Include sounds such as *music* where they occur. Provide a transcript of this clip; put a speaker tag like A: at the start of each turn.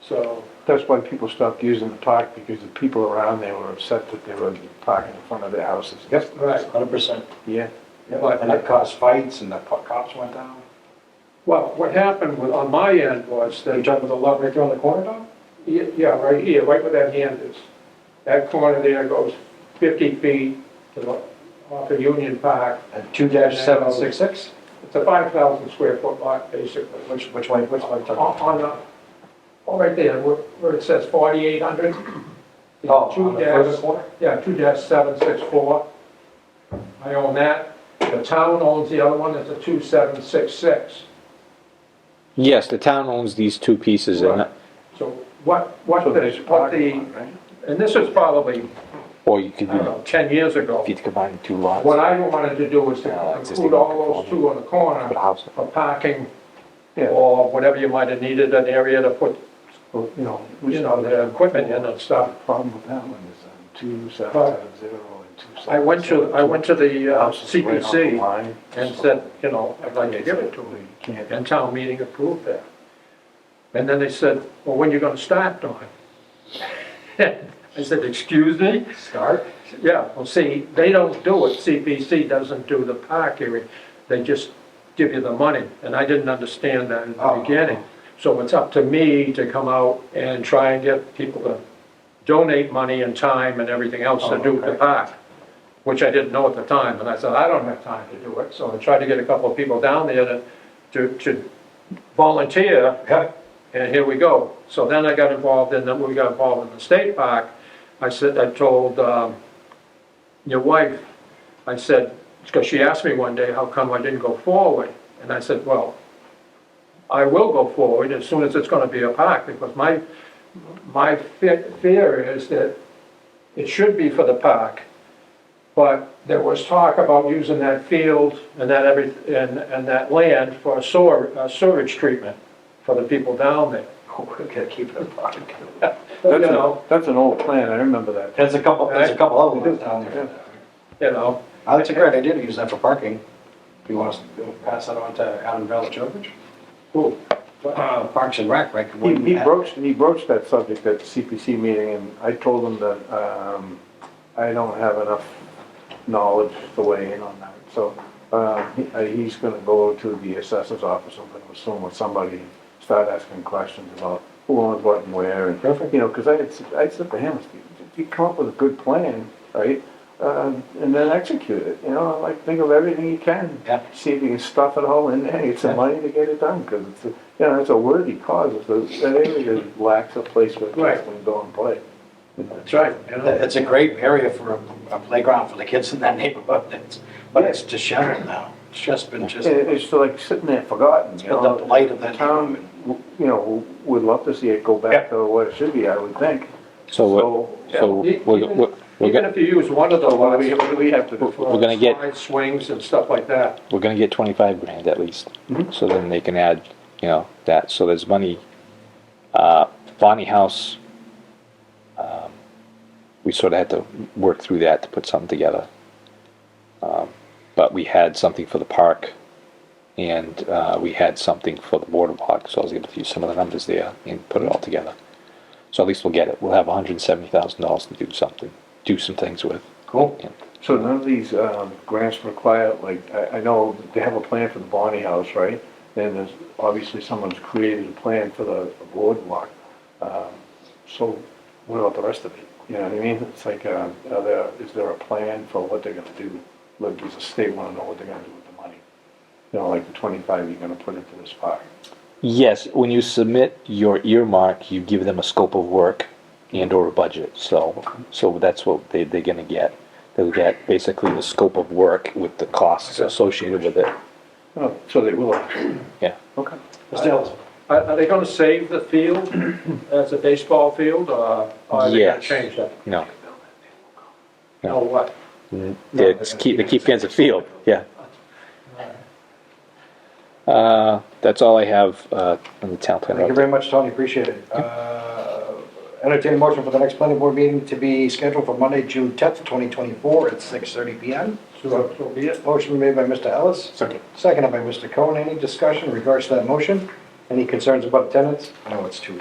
A: So,
B: That's why people stopped using the park, because the people around there were upset that they were parking in front of their houses. Yep.
A: right,
C: Hundred percent.
B: Yeah.
C: And that caused fights and the po- cops went down.
A: well, what happened with- on my end was that.
C: They jumped with the lot right there on the corner dog?
A: Yeah, yeah, right here, right where that hand is. That corner there goes 50 feet to the, off of Union Park.
C: And Uh, two dash seven six six?
A: It's a 5,000 square foot lot, basically.
C: Which, which one, which one?
A: On, on the, oh, right there, where where it says 4,800.
C: Oh, on
A: Two
C: the
A: dash,
C: further corner?
A: yeah, two dash seven six four. I own that. The town owns the other one, it's a 2766.
D: Yes, the town owns these two pieces and,
A: Right. So what, what
B: So there's
A: the,
B: a
A: what the,
B: parking lot, right?
A: and this is probably,
D: or you could
A: I don't
D: do,
A: know, 10 years ago.
D: if you combine the two lots,
A: What I wanted to do was
D: Yeah,
A: to
D: existing
A: include all those
D: non-conforming.
A: two on the corner
D: put a house.
A: for parking
B: Yeah.
A: or whatever you might have needed, an area to put,
B: Well, you know, we
A: you know,
B: started
A: the
B: the
A: equipment in and stuff.
B: problem with that one is um, two seven
A: But
B: seven zero and two seven.
A: I went to, I went to the uh, CPC and
B: and
A: said, you know, I'd like to give it to me. And town meeting approved that. And then they said, well, when you gonna start, Don? *laughs* I said, excuse me?
C: Start?
A: Yeah, well, see, they don't do it, CPC doesn't do the park area, they just give you the money, and I didn't understand that in the
C: Oh.
A: beginning. So it's up to me to come out and try and get people to donate money and time and everything else to
C: Oh,
A: do the
C: okay.
A: park, which I didn't know at the time, and I said, I don't have time to do it, so I tried to get a couple of people down there to, to, to volunteer,
C: Yep. *laughs*
A: and here we go. So then I got involved in, then we got involved in the state park. I said, I told, um, your wife, I said, because she asked me one day, how come I didn't go forward? And I said, well, I will go forward as soon as it's gonna be a park, because my, my fe- fear is that it should be for the park. But there was talk about using that field and that every, and, and that land for sewer, uh, sewage treatment for the people down there.
C: We're gonna keep it apart.
A: You
B: That's an,
A: know,
B: that's an old plan, I remember that.
C: There's a couple, there's a couple other ones down there.
A: you know,
C: Oh, That's a great idea to use that for parking. Do you want us to pass that on to Adam Valichowicz?
A: who,
C: Uh, Parks and Rec, right?
B: He, he broached, he broached that subject at CPC meeting, and I told him that, um, I don't have enough knowledge to weigh in on that. So, uh, he- uh, he's gonna go to the assessor's office or something, soon with somebody, and start asking questions about who owns what and where, and, you know, because I had, s- I said to him, if you come up with a good plan, right? Uh, and then execute it, you know, like, think of everything you can.
C: Yeah.
B: See if you can stuff it all in there, get some money to get it done, because it's, a- you know, it's a worthy cause, it's a- that area lacks a place where kids
A: Right.
B: can go and play.
A: that's right, you know.
C: It's a great area for a- a playground for the kids in that *laughs* neighborhood, It's- but it's disheveled now. It's just been just,
B: And it's like sitting there forgotten, you
C: been
B: know?
C: the blight of that
B: Town,
C: neighborhood.
B: w- you know, would love to see it go back to what it should be, I would think.
D: So, what- so
A: E-
D: we're, we're, we're,
A: Even
D: gonna-
A: if you use one of the
B: So what
A: lots.
B: do we, what do we have to do?
D: We're gonna get-
A: Slide Swings and stuff like that.
D: we're gonna get twenty-five grand at least. So then they can add, you know, that, so there's money, uh, Bonnie House, um, we sort of had to work through that to put something together. Um, but we had something for the park and, uh, we had something for the border block, so I was able to use some of the numbers there and put it all together. So at least we'll get it. We'll have hundred and seventy thousand dollars to do something, do some things with.
C: Cool.
D: And
B: So none of these um, grants require, like, I, I know they have a plan for the Bonnie House, right? And there's, obviously someone's created a plan for the boardwalk. Um, So what about the rest of it? You know what I mean? It's like, uh, are there, is there a plan for what they're gonna do? Like, does the state wanna know what they're gonna do with the money? You know, like the twenty-five you're gonna put into this park?
D: Yes, when you submit your earmark, you give them a scope of work and/or a budget. So, so that's what they, they're gonna get. They'll get basically the scope of work with the costs associated with it.
B: Oh, so they will,
D: Yeah.
B: okay.
C: Still,
A: Are, are they gonna save the field
D: *clears throat*
A: as a baseball field, or are they gonna
D: Yes.
A: change that?
D: No,
A: Or what?
D: they keep, they keep fans of field, yeah. Uh, that's all I have, uh, on the town
C: thank you
D: plan.
C: very much, Tony, appreciate it. Uh, Entertain a motion for the next planning board meeting to be scheduled for Monday, June 10th, 2024 at 6:30 PM.
A: So, so be it.
C: Motion made by Mr. Ellis. Second. Seconded by Mr. Cohen. Any discussion in regards to that motion? Any concerns about attendance? I know it's too,